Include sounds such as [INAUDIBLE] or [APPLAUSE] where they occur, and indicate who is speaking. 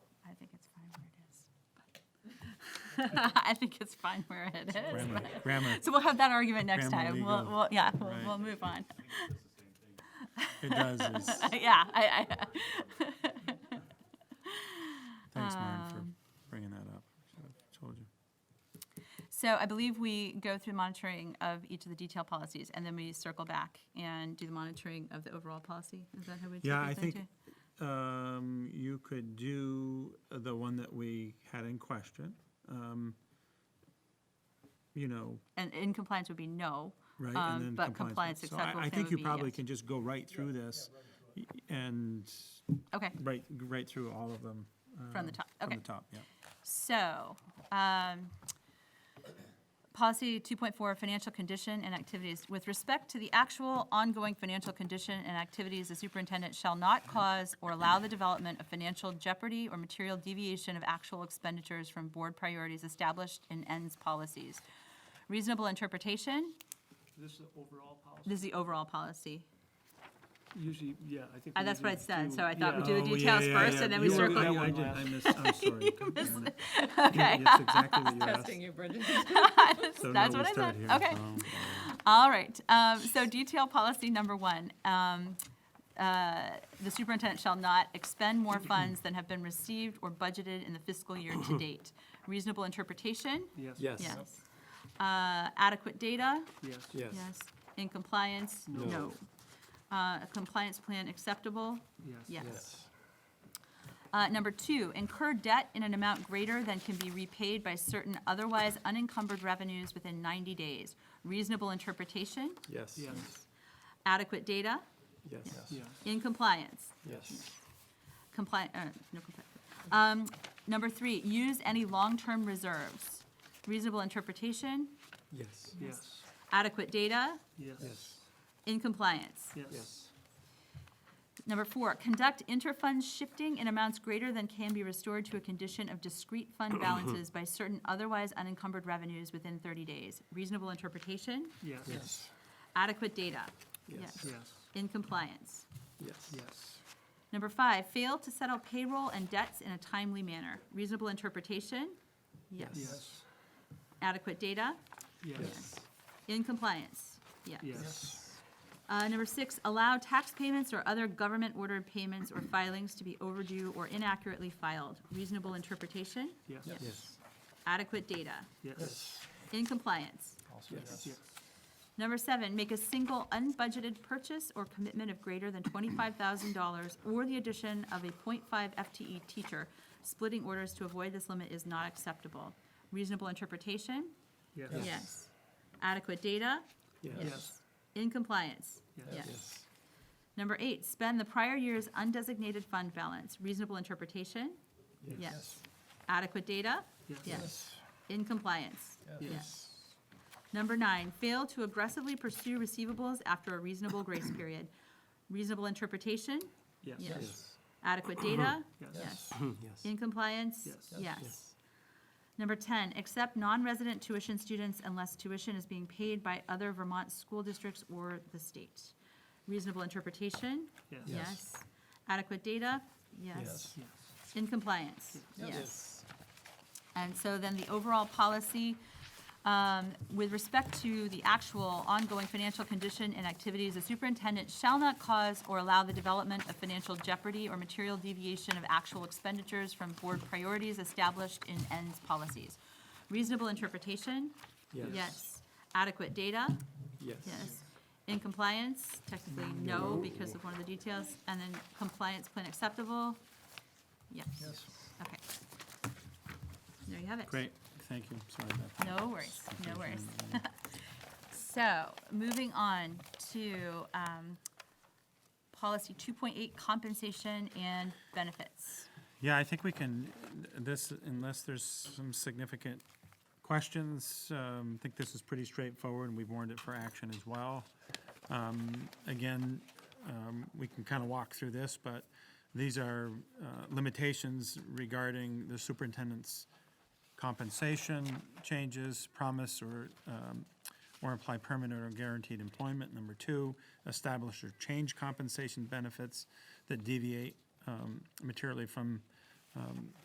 Speaker 1: [LAUGHS] I think it's fine where it is.
Speaker 2: Grammar,
Speaker 1: but-
Speaker 2: grammar.
Speaker 1: So we'll have that argument next
Speaker 2: Grammar
Speaker 1: time. We'll,
Speaker 2: legal.
Speaker 1: we'll, yeah, we'll,
Speaker 2: Right.
Speaker 1: we'll move on. [LAUGHS]
Speaker 2: It does. It's,
Speaker 1: Yeah, I, I,
Speaker 2: thanks, Maren, for
Speaker 1: Um,
Speaker 2: bringing that up. I told you.
Speaker 1: so I believe we go through monitoring of each of the detail policies and then we circle back and do the monitoring of the overall policy. Is that how we do it?
Speaker 2: Yeah, I think um, you could do the one that we had in question. Um, You know,
Speaker 1: And in compliance would be no.
Speaker 2: right?
Speaker 1: um,
Speaker 2: and then
Speaker 1: But compliance
Speaker 2: So I-
Speaker 1: acceptable
Speaker 2: I
Speaker 1: plan
Speaker 2: think
Speaker 1: would
Speaker 2: you
Speaker 1: be
Speaker 2: probably
Speaker 1: yes.
Speaker 2: can just go right through this y- and
Speaker 1: Okay,
Speaker 2: right, right through all of them.
Speaker 1: from the
Speaker 2: um,
Speaker 1: top,
Speaker 2: From
Speaker 1: okay.
Speaker 2: the top, yeah.
Speaker 1: So, um, policy 2.4, financial condition and activities. With respect to the actual ongoing financial condition and activities, the superintendent shall not cause or allow the development of financial jeopardy or material deviation of actual expenditures from board priorities established in ends policies. Reasonable interpretation,
Speaker 3: This is the overall policy?
Speaker 1: this is the overall policy. [LAUGHS]
Speaker 3: Usually, yeah, I think.
Speaker 1: Uh,
Speaker 3: we
Speaker 1: that's what I
Speaker 3: usually
Speaker 1: said,
Speaker 3: do-
Speaker 1: so I thought we
Speaker 3: yeah.
Speaker 1: do the
Speaker 2: Oh, yeah,
Speaker 1: details
Speaker 2: yeah,
Speaker 1: first
Speaker 2: yeah.
Speaker 1: and then we
Speaker 2: You were-
Speaker 1: circle.
Speaker 3: that
Speaker 2: yeah,
Speaker 3: one
Speaker 2: I did- I
Speaker 3: last.
Speaker 1: [LAUGHS]
Speaker 2: missed, I'm sorry. Yeah. [LAUGHS]
Speaker 1: Okay,
Speaker 2: That's exactly what you asked. So now
Speaker 1: that's
Speaker 2: we
Speaker 1: what I said,
Speaker 2: start here.
Speaker 1: okay.
Speaker 2: Um,
Speaker 1: All right, um, so detail policy number one. um, uh, The superintendent shall not expend
Speaker 3: [CLEARS THROAT]
Speaker 1: more funds than have been received or budgeted in the fiscal year to date. Reasonable interpretation?
Speaker 3: Yes,
Speaker 4: Yes.
Speaker 1: Yes. Uh, Adequate data?
Speaker 3: yes,
Speaker 4: Yes.
Speaker 1: Yes. In compliance?
Speaker 3: No.
Speaker 1: Uh, A compliance plan acceptable?
Speaker 3: yes.
Speaker 1: Yes. Uh, Number two, incur debt in an amount greater than can be repaid by certain otherwise unencumbered revenues within 90 days. Reasonable interpretation?
Speaker 4: Yes.
Speaker 3: Yes,
Speaker 1: Adequate data?
Speaker 4: Yes.
Speaker 3: yes,
Speaker 1: In compliance?
Speaker 4: Yes.
Speaker 1: Compli uh, no compli Um, number three, use any long-term reserves. Reasonable interpretation,
Speaker 4: Yes.
Speaker 3: yes,
Speaker 1: adequate data,
Speaker 3: yes,
Speaker 1: in compliance.
Speaker 3: yes,
Speaker 1: Number four, conduct inter-fund shifting in amounts greater than can be restored to a condition of discrete fund balances by certain otherwise unencumbered revenues within thirty days. Reasonable interpretation,
Speaker 3: yes, yes,
Speaker 4: Yes.
Speaker 1: adequate data.
Speaker 4: Yes.
Speaker 1: Yes. In compliance.
Speaker 4: Yes.
Speaker 3: yes,
Speaker 1: Number five, fail to settle payroll and debts in a timely manner. Reasonable interpretation, yes.
Speaker 3: yes,
Speaker 1: Adequate data,
Speaker 3: yes,
Speaker 1: In compliance, yeah.
Speaker 3: yes,
Speaker 1: Uh, Number six, allow tax payments or other government-ordered payments or filings to be overdue or inaccurately filed. Reasonable interpretation,
Speaker 3: yes,
Speaker 1: Yes.
Speaker 4: Yes.
Speaker 1: adequate data,
Speaker 3: yes,
Speaker 1: in compliance.
Speaker 4: Yes.
Speaker 3: yes,
Speaker 1: Number seven, make a single unbudgeted purchase or commitment of greater than twenty-five thousand dollars or the addition of a 0.5 FTE E teacher. Splitting orders to avoid this limit is not acceptable. Reasonable interpretation,
Speaker 3: yes,
Speaker 1: yes. Adequate data,
Speaker 4: Yes.
Speaker 1: yes. In compliance,
Speaker 3: Yes.
Speaker 1: yes. Number eight, spend the prior year's undesignated fund balance. Reasonable interpretation? Yes. Adequate data?
Speaker 3: yes,
Speaker 1: In compliance?
Speaker 3: yes,
Speaker 1: Number nine, fail to aggressively pursue receivables after a reasonable grace period. Reasonable interpretation?
Speaker 3: yes,
Speaker 1: Yes. Adequate data?
Speaker 3: yes,
Speaker 4: Yes.
Speaker 1: In compliance?
Speaker 3: Yes.
Speaker 1: Yes. Number 10, accept non-resident tuition students unless tuition is being paid by other Vermont school districts or the state. Reasonable interpretation?
Speaker 3: Yes.
Speaker 1: Yes. Adequate data? Yes.
Speaker 3: yes,
Speaker 1: In compliance?
Speaker 4: Yes.
Speaker 1: And so then the overall policy, um, with respect to the actual ongoing financial condition and activities, the superintendent shall not cause or allow the development of financial jeopardy or material deviation of actual expenditures from board priorities established in ends policies. Reasonable interpretation? Yes. Adequate data? Yes. In compliance, technically no because of one of the details. And then compliance plan acceptable? Yes. Okay. There you have it.
Speaker 2: Great, thank you, sorry about that.
Speaker 1: No worries, no worries. So, moving on to um, policy 2.8, compensation and benefits.
Speaker 2: Yeah, I think we can, this, unless there's some significant questions, um, I think this is pretty straightforward, and we've warned it for action as well. Um, Again, um, we can kind of walk through this, but these are uh, limitations regarding the superintendent's compensation changes, promise or, um, or imply permanent or guaranteed employment. Number two, establish or change compensation benefits that deviate um, materially from